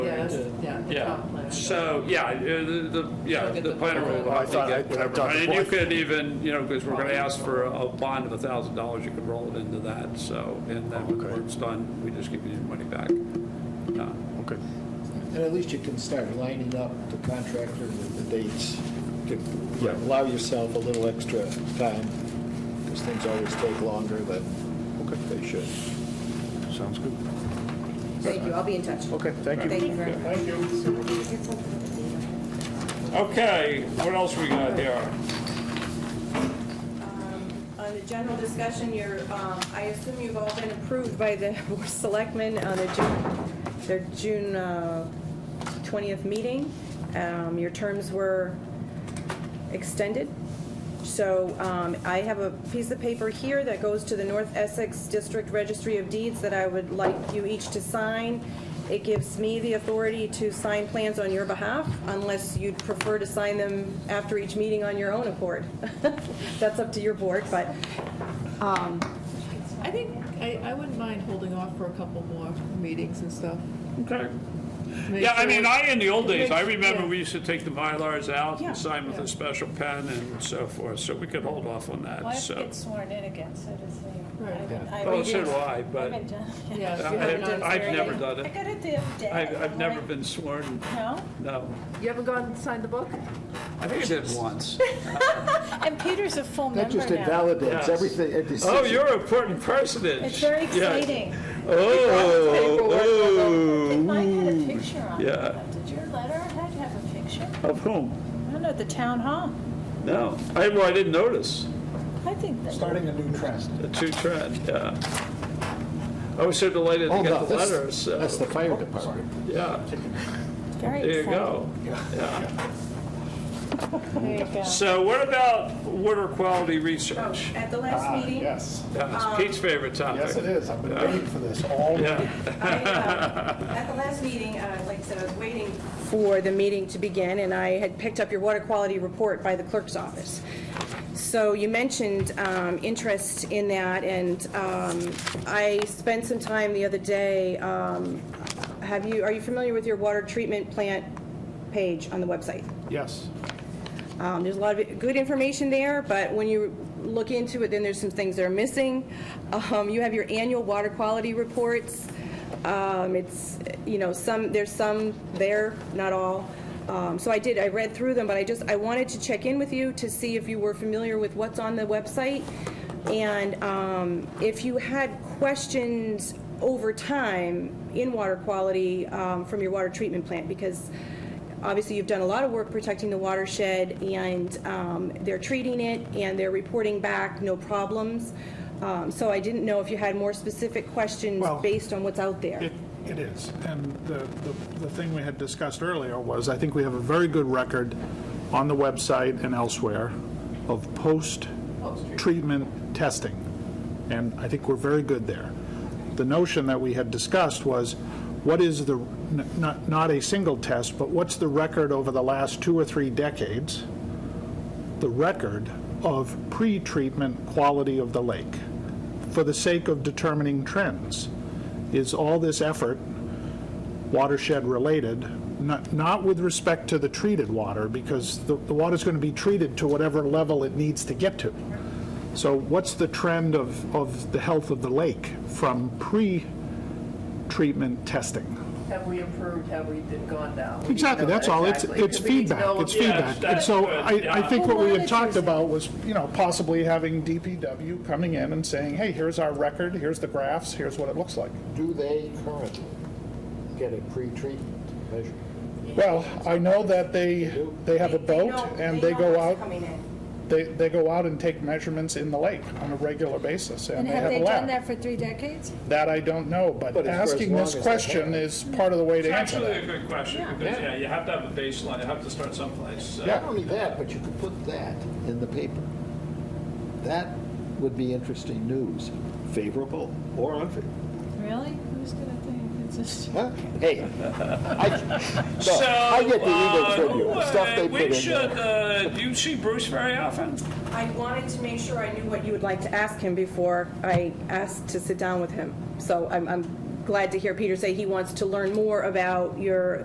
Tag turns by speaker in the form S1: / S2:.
S1: Yeah, so, yeah, uh, the, the- yeah, the planner will
S2: I
S1: have to
S2: thought I-
S1: get
S2: I
S1: whatever.
S2: thought the
S1: And you
S2: board-
S1: could even, you know, because we're going to ask for a a bond of a thousand dollars, you could roll it into that, so, and then when the
S2: Okay.
S1: work's done, we just give you the money back. Uh,
S2: Okay.
S3: And at least you can start lining up the contractor with the dates. to
S2: Yeah.
S3: Allow yourself a little extra time, because things always take longer than they should.
S2: Sounds good.
S4: Thank you, I'll be in touch.
S2: Okay, thank you.
S4: Thank you very much.
S1: Thank you. Okay, what else we got here?
S4: On the general discussion, you're, um, I assume you've all been approved by the Board of Selectmen on the June, their June uh, 20th meeting. Um, Your terms were extended. So um, I have a piece of paper here that goes to the North Essex District Registry of Deeds that I would like you each to sign. It gives me the authority to sign plans on your behalf unless you'd prefer to sign them after each meeting on your own accord. That's up to your board, but um,
S5: I think, I, I wouldn't mind holding off for a couple more meetings and stuff.
S1: Okay.
S5: Make
S1: Yeah, I
S5: sure-
S1: mean, I, in the old days, I
S5: Make-
S1: remember
S5: yeah.
S1: we used to take the Mylars out
S4: Yeah.
S1: and sign with
S5: Yeah.
S1: a special pen and so forth, so we could hold off on
S6: Well, I
S1: that,
S6: have to
S1: so.
S6: get sworn in again, so does he.
S5: Right.
S6: I've been- I've
S1: Oh,
S6: been-
S1: so do I,
S6: I've
S1: but
S6: been done.
S5: Yeah, if you
S1: I-
S5: haven't done
S1: I've
S5: survey-
S1: never done
S6: I
S1: it.
S6: got it the other day.
S1: I've, I've
S6: I'm
S1: never
S6: like,
S1: been sworn,
S6: No?
S1: no.
S5: You haven't gone and signed the book?
S1: I think I did once.
S6: And Peter's a full
S3: That
S6: member
S3: just
S6: now.
S3: invalidates
S1: Yes.
S3: everything. every
S1: Oh,
S3: decision.
S1: you're an important personage.
S6: It's very
S1: Yeah.
S6: exciting.
S1: Oh,
S6: Mine had a
S1: oh.
S6: picture on
S1: Yeah.
S6: it. Did your letter had to have a picture?
S1: Of whom?
S6: I don't know, at the town hall.
S1: No, I, well, I didn't notice.
S6: I think that,
S3: Starting a new trend.
S1: The two trend, yeah. I was so delighted to
S3: Oh, no,
S1: get the
S3: that's-
S1: letters, so,
S3: That's the fire department.
S1: yeah,
S6: very
S1: there you
S6: exciting.
S1: go.
S6: There you go.
S1: So what about water quality
S4: Oh,
S1: research?
S4: At the last
S2: Ah,
S4: meeting,
S2: Yes,
S6: Oh, um,
S1: That's Pete's favorite topic.
S2: yes it is. I've been waiting for this all week.
S1: Yeah.
S4: I, uh, At the last meeting, uh, like I said, I was waiting for the meeting to begin, and I had picked up your water quality report by the clerk's office. So you mentioned um, interest in that, and um, I spent some time the other day, um, have you, are you familiar with your water treatment plant page on the website?
S2: Yes.
S4: Um, There's a lot of good information there, but when you look into it, then there's some things that are missing. Um, You have your annual water quality reports. Um, It's, you know, some, there's some there, not all. Um, So I did, I read through them, but I just, I wanted to check in with you to see if you were familiar with what's on the website. And um, if you had questions over time in water quality um, from your water treatment plant, because Obviously, you've done a lot of work protecting the watershed, and um, they're treating it, and they're reporting back no problems. Um, So I didn't know if you had more specific questions
S7: Well,
S4: based on what's out there.
S7: It, it is. And the, the- the thing we had discussed earlier was, I think we have a very good record on the website and elsewhere of post-treatment testing. And I think we're very good there. The notion that we had discussed was, what is the, n- not, not a single test, but what's the record over the last two or three decades? the record of pre-treatment quality of the lake for the sake of determining trends. Is all this effort watershed-related, not, not with respect to the treated water, because the, the water's going to be treated to whatever level it needs to get to. So what's the trend of, of the health of the lake from pre-treatment testing?
S5: Have we improved, have we been gone down?
S7: Exactly, that's all, it's, it's feedback, it's feedback. And so I, I think what we had talked about was, you know, possibly having DPW coming in and saying, hey, here's our record, here's the graphs, here's what it looks like.
S3: Do they currently get a pre-treatment measure?
S7: Well, I know that they, they have a boat and they go out, they, they go out and take measurements in the lake on a regular basis and
S8: And
S7: they
S8: have
S7: have a
S8: they done that
S7: lab.
S8: for three decades?
S7: That I don't know, but
S3: But it's for as
S7: asking
S3: long
S7: this
S3: as they
S7: question
S3: have.
S7: is part of the way
S1: It's
S7: to answer
S1: actually a
S7: that.
S1: good question, because, yeah, you have to have a baseline, you have to start someplace, so.
S7: Yeah.
S3: Not only that, but you could put that in the paper. That would be interesting news, favorable or unfavorable.
S6: Really? Who's gonna think it's just?
S3: Huh? Hey, I,
S1: So,
S3: no, I get the
S1: uh,
S3: emails from you, the stuff
S1: uh,
S3: they
S1: We
S3: put in
S1: should,
S3: there.
S1: uh, do you see Bruce very often?
S4: I wanted to make sure I knew what you would like to ask him before I asked to sit down with him. So I'm- I'm glad to hear Peter say he wants to learn more about your